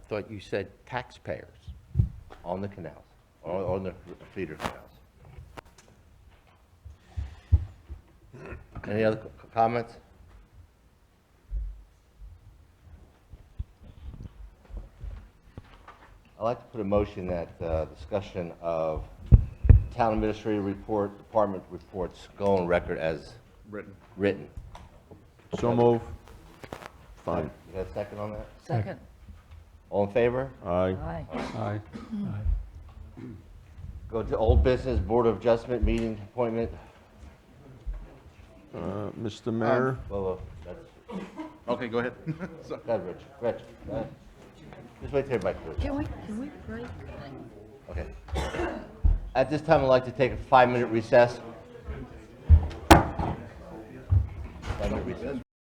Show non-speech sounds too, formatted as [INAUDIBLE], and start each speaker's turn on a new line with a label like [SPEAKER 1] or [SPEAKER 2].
[SPEAKER 1] thought you said taxpayers on the canals, on, on the feeder canals. Any other c- comments? I'd like to put a motion that uh, discussion of town administrative report, department reports go on record as
[SPEAKER 2] Written.
[SPEAKER 1] written.
[SPEAKER 2] So move.
[SPEAKER 1] You
[SPEAKER 2] Fine.
[SPEAKER 1] got a second on that?
[SPEAKER 3] Second.
[SPEAKER 1] All in favor?
[SPEAKER 2] Aye.
[SPEAKER 3] Aye.
[SPEAKER 4] Aye.
[SPEAKER 1] Go to old business, Board of Adjustment, meeting appointment.
[SPEAKER 2] Uh, Mr. Mayor,
[SPEAKER 1] Well, uh, that's,
[SPEAKER 5] [LAUGHS] Okay, go ahead.
[SPEAKER 1] that's Rich, Rich. go ahead. Just wait till everybody. finishes.
[SPEAKER 3] Can we, can we break?
[SPEAKER 1] Okay. At this time, I'd like to take a five-minute recess.